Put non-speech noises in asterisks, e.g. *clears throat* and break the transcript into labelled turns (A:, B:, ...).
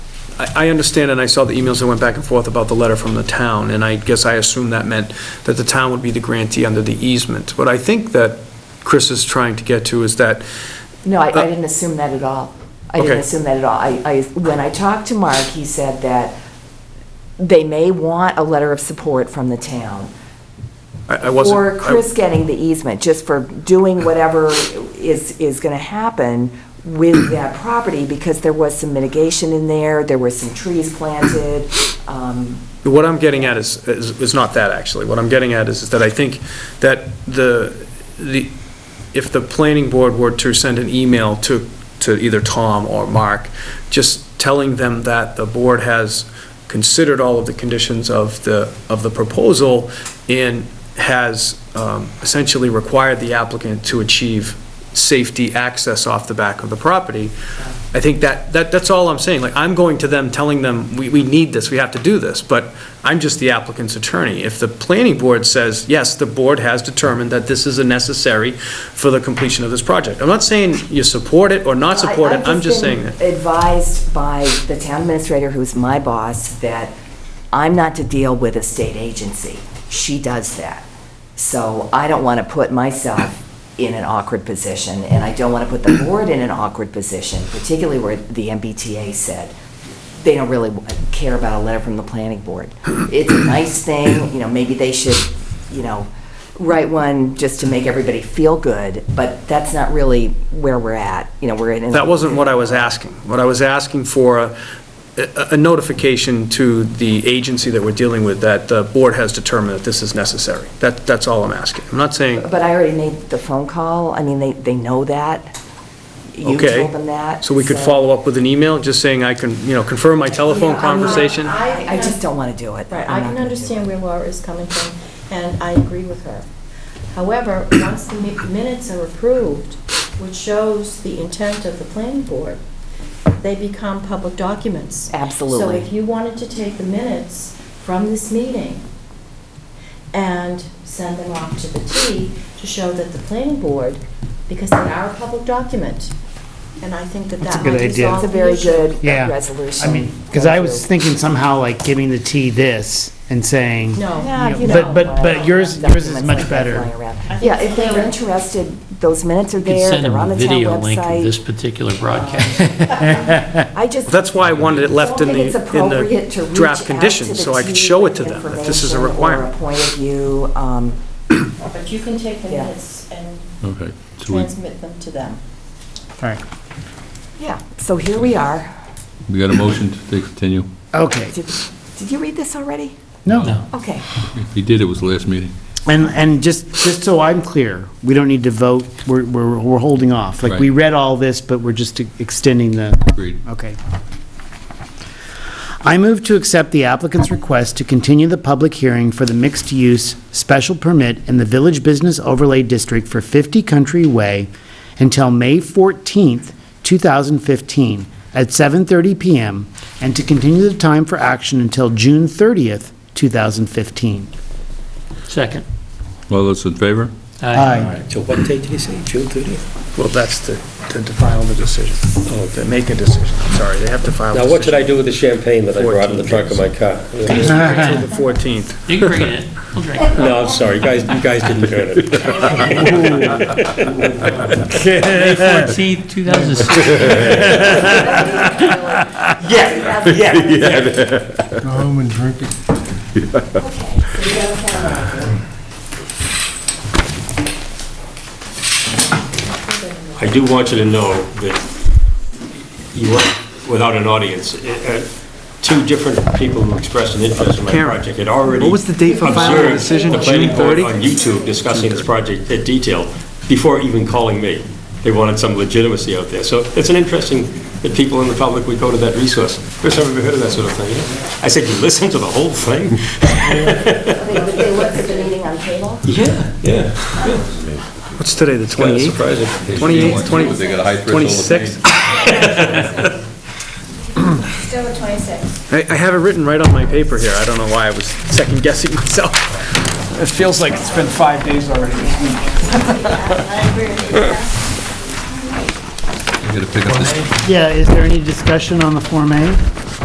A: I, I understand, and I saw the emails that went back and forth about the letter from the town, and I guess I assumed that meant that the town would be the grantee under the easement. What I think that Chris is trying to get to is that,
B: No, I,
A: Uh,
B: I didn't assume that at all. I didn't
A: Okay.
B: assume that at all. I, I, when I talked to Mark, he said that they may want a letter of support from the town.
A: I I wasn't.
B: Or Chris getting the easement, just for doing whatever is, is gonna happen
A: *clears throat*
B: with that property, because there was some mitigation in there, there were some trees planted, um,
A: What I'm getting at is, is is not that, actually. What I'm getting at is, is that I think that the, the, if the planning board were to send an email to, to either Tom or Mark, just telling them that the board has considered all of the conditions of the, of the proposal and has um, essentially required the applicant to achieve safety access off the back of the property, I think that, that, that's all I'm saying. Like, I'm going to them, telling them, we, we need this, we have to do this, but I'm just the applicant's attorney. If the planning board says, yes, the board has determined that this is a necessary for the completion of this project. I'm not saying you support it or not
B: I-
A: support it,
B: I've
A: I'm just
B: been
A: saying that.
B: Advised by the town administrator, who's my boss, that I'm not to deal with a state agency. She does that. So I don't want to put myself in an awkward position, and I don't want to put the board in an awkward position, particularly where the MBTA said they don't really care about a letter from the planning board. It's a nice thing, you know, maybe they should, you know, write one just to make everybody feel good, but that's not really where we're at. You know, we're in.
A: That wasn't what I was asking. What I was asking for, a- a notification to the agency that we're dealing with, that the board has determined that this is necessary. That, that's all I'm asking. I'm not saying,
B: But I already made the phone call. I mean, they, they know that. You
A: Okay.
B: told them that.
A: so we could follow up with an email, just saying I can, you know, confirm my telephone
C: Yeah, I'm not-
A: conversation?
B: I, I just don't want to do it.
C: Right,
B: I'm not
C: I can
B: gonna do it.
C: understand where Laura is coming from, and I agree with her. However, once the mi- minutes are approved, which shows the intent of the planning board, they become public documents.
B: Absolutely.
C: So if you wanted to take the minutes from this meeting and send them off to the T to show that the planning board, because they are a public document, and I think that
D: That's a
C: that
D: good
C: might
D: idea.
C: resolve
B: It's a
C: the
B: very
C: issue.
B: good
D: Yeah.
B: resolution.
D: I mean, because I was
B: Thank you.
D: thinking somehow like giving the T this and saying.
C: No.
B: Yeah, you
D: But-
B: know,
D: but-
B: I
D: but
B: don't
D: yours-
B: have
D: yours is
B: documents
D: much
B: like that
D: better.
B: flying around.
C: I think
B: Yeah,
C: it's
B: if they're
C: clearer.
B: interested, those minutes are
E: You can
B: there,
E: send them
B: they're on
E: a
B: the town
E: video link of this
B: website.
E: particular
B: *laughs*
E: broadcast.
B: I just.
A: That's why I wanted it left in
B: don't
A: the,
B: think it's
A: in
B: appropriate to
A: the
B: reach out
A: draft
B: to
A: conditions,
B: the
A: so I could
B: team
A: show it
B: with
A: to them, that this is a
B: information
A: requirement.
B: Or a point of view, um,
C: But you can take the
B: Yeah.
C: minutes and
F: Okay. so we-
C: transmit them to them.
D: All right,
B: yeah, so here we are.
F: We got a motion to continue?
D: okay,
B: Did did you read this already?
D: no.
E: No.
B: Okay.
F: If he did, it was last meeting.
D: And, and just, just so I'm clear, we don't need to vote, we're, we're, we're holding off. Like, we
F: Right.
D: read all this, but we're just extending the.
F: Agreed.
D: Okay. I move to accept the applicant's request to continue the public hearing for the mixed-use special permit in the Village Business Overlay District for 50 Country Way until May 14th, 2015, at 7:30 PM, and to continue the time for action until June 30th, 2015.
E: Second.
F: All those in favor?
D: Aye.
G: So what date did he say, June 30th?
A: Well, that's to, to to file the decision, to Oh, make a decision, I'm sorry, they have to file. a
G: Now, what should
A: decision
G: I do with the champagne that I brought in the trunk of my car?
A: Until the 14th.
E: You can bring it in. We'll drink *laughs* it.
G: No, I'm sorry, you guys, you guys didn't earn it.
E: 14th, 2016.
H: I do want you to know that you went without an audience. Uh, Two different people who expressed an interest in my
A: Karen,
H: project had already.
A: what was the date for filing the
H: observed
A: decision?
H: The planning
A: June
H: board
A: 30?
H: on YouTube discussing this project in detail before even calling me. They wanted some legitimacy out there. So it's an interesting that people in the public would go to that resource. First time I've ever heard of that sort of thing. you know? I said, you listen to the whole thing?
B: They they looked at the meeting on cable?
H: Yeah, yeah.
A: What's today, the
H: Kind of
A: 28th?
H: surprising.
A: 28th, 20
F: got a high
A: 26th?
C: Still the 26th.
A: I, I have it written right on my paper here, I don't know why I was second guessing *laughs* myself. It feels like it's been five days already.
F: You gotta pick up this,
D: Yeah, is there any discussion on the Form A?